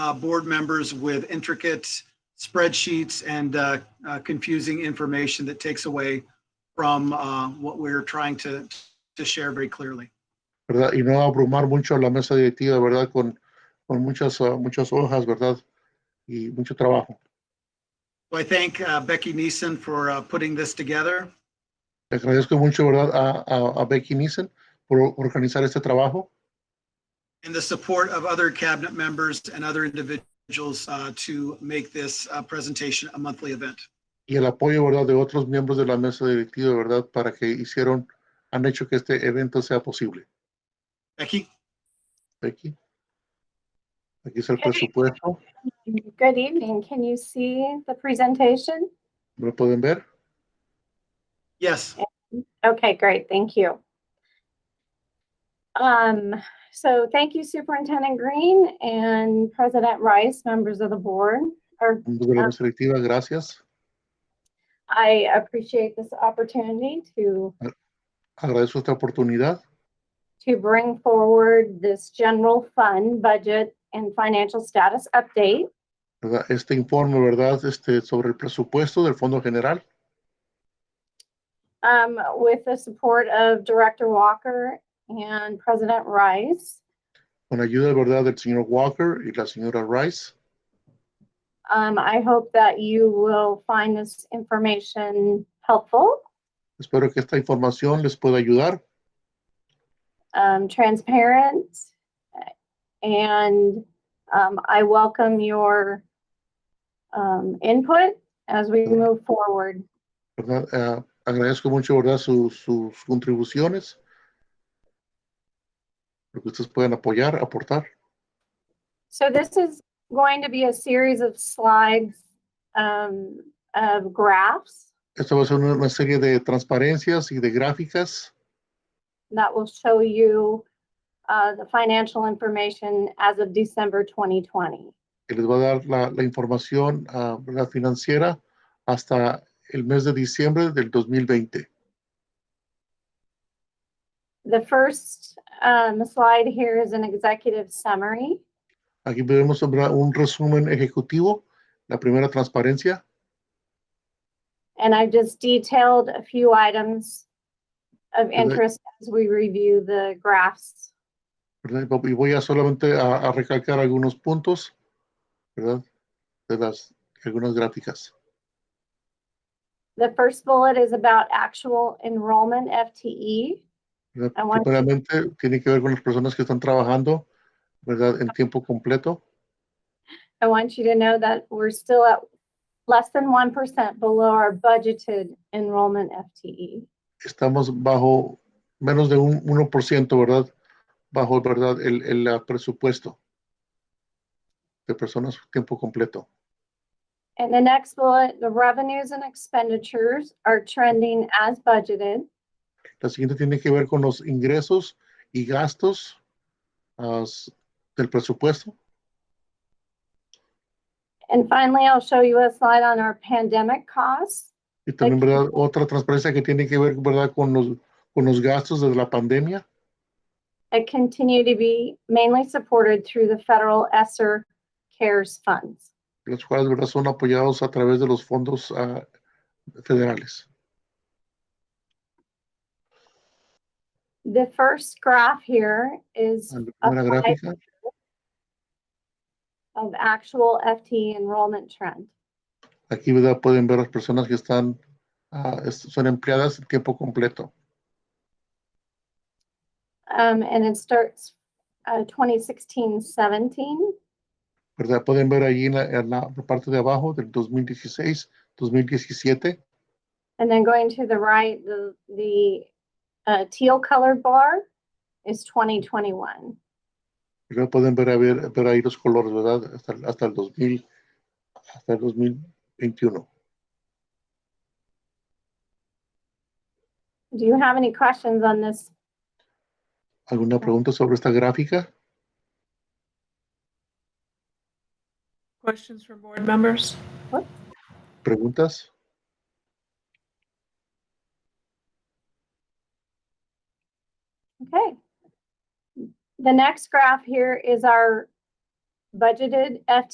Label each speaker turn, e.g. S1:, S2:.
S1: uh, board members with intricate spreadsheets and uh, uh, confusing information that takes away from uh, what we're trying to, to share very clearly.
S2: ¿verdad? Y no abrumar mucho a la mesa directiva, ¿verdad? Con, con muchas, ah, muchas hojas, ¿verdad? Y mucho trabajo.
S1: So I thank uh, Becky Neeson for uh, putting this together.
S2: Le agradezco mucho, ¿verdad? A, a, a Becky Nissen por organizar este trabajo
S1: and the support of other cabinet members and other individuals uh, to make this uh, presentation a monthly event.
S2: y el apoyo, ¿verdad? De otros miembros de la mesa directiva, ¿verdad? Para que hicieron, han hecho que este evento sea posible.
S1: Becky,
S2: Becky. Aquí es el
S3: Ok.
S2: presupuesto.
S3: Good evening. Can you see the presentation?
S2: ¿Lo pueden ver?
S1: yes,
S3: Okay, great. Thank you. Um, so thank you Superintendent Green and President Rice, members of the board. Or
S2: Miembros de la mesa directiva, gracias.
S3: I appreciate this opportunity to,
S2: Agradezco esta oportunidad
S3: to bring forward this general fund budget and financial status update.
S2: ¿verdad? este informe, ¿verdad? Este, sobre el presupuesto del Fondo General,
S3: um, with the support of Director Walker and President Rice.
S2: con ayuda, ¿verdad? Del señor Walker y la señora Rice.
S3: Um, I hope that you will find this information helpful,
S2: Espero que esta información les pueda ayudar,
S3: um, transparent, and um, I welcome your um, input as we move forward.
S2: ¿verdad? Ah, agradezco mucho, ¿verdad? Su- sus contribuciones. Lo que ustedes puedan apoyar, aportar.
S3: So this is going to be a series of slides um, of graphs
S2: Esta va a ser una, una serie de transparencias y de gráficas
S3: that will show you uh, the financial information as of December 2020.
S2: que les va a dar la, la información ah, ¿verdad? financiera hasta el mes de diciembre del 2020.
S3: The first um, slide here is an executive summary.
S2: Aquí vemos ¿verdad? un resumen ejecutivo, la primera transparencia,
S3: And I've just detailed a few items of interest as we review the graphs.
S2: ¿verdad? Y voy a solamente a, a recalcar algunos puntos, ¿verdad? De las algunas gráficas.
S3: The first bullet is about actual enrollment E. FTE.
S2: ¿verdad?
S3: I want to-
S2: Primeramente tiene que ver con las personas que están trabajando, ¿verdad? En tiempo completo,
S3: I want you to know that we're still at less than 1% below our budgeted enrollment E. FTE.
S2: estamos bajo menos de un 1%, ¿verdad? Bajo, ¿verdad? El, el ah, presupuesto de personas tiempo completo.
S3: And the next bullet, the revenues and expenditures are trending as budgeted.
S2: La siguiente tiene que ver con los ingresos y gastos ah, s- del presupuesto.
S3: And finally, I'll show you a slide on our pandemic costs.
S2: Y también,
S3: Aquí.
S2: ¿verdad? Otra transparencia que tiene que ver, ¿verdad? Con los, con los gastos de la pandemia,
S3: that continue to be mainly supported through the federal ESSER CARES funds.
S2: los cuales, ¿verdad? Son apoyados a través de los fondos ah, federales.
S3: The first graph here is
S2: En la
S3: a
S2: primera
S3: slide
S2: gráfica,
S3: of actual FTE enrollment trend.
S2: aquí, ¿verdad? Pueden ver las personas que están, ah, es- son empleadas en tiempo completo.
S3: Um, and it starts, uh, 2016, 17.
S2: ¿verdad? Pueden ver ahí en la, en la parte de abajo del 2016, 2017,
S3: And then going to the right, the, the, uh, teal colored bar is 2021.
S2: ¿verdad? Pueden ver, a ver, ver ahí los colores, ¿verdad? Hasta, el- hasta el 2000, hasta el 2021.
S3: Do you have any questions on this?
S2: ¿Alguna pregunta sobre esta gráfica?
S4: Questions from board members?
S2: ¿Preguntas?
S3: Okay. The next graph here is our budgeted FTE